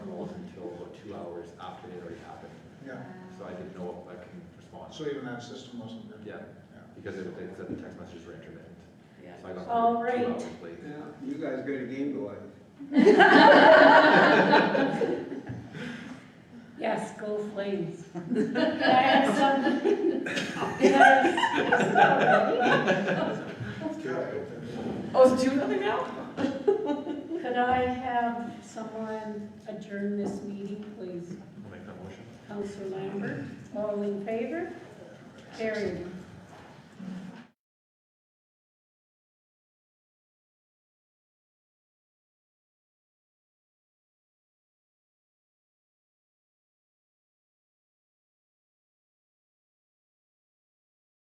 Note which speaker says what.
Speaker 1: so I didn't know if I can respond.
Speaker 2: So even that system wasn't there?
Speaker 1: Yeah, because it, it said the text messages were intermittent.
Speaker 3: Yeah.
Speaker 1: So I got
Speaker 3: All
Speaker 1: them two
Speaker 3: right.
Speaker 1: hours late.
Speaker 4: Yeah, you guys got a game going.
Speaker 3: Yes, go Flames. Can I have some? Can I-
Speaker 5: Oh, it's two nothing now?
Speaker 3: Could I have someone adjourn this meeting, please?
Speaker 1: I'll make that motion.
Speaker 3: Counselor Lambert, all in favor? Carried.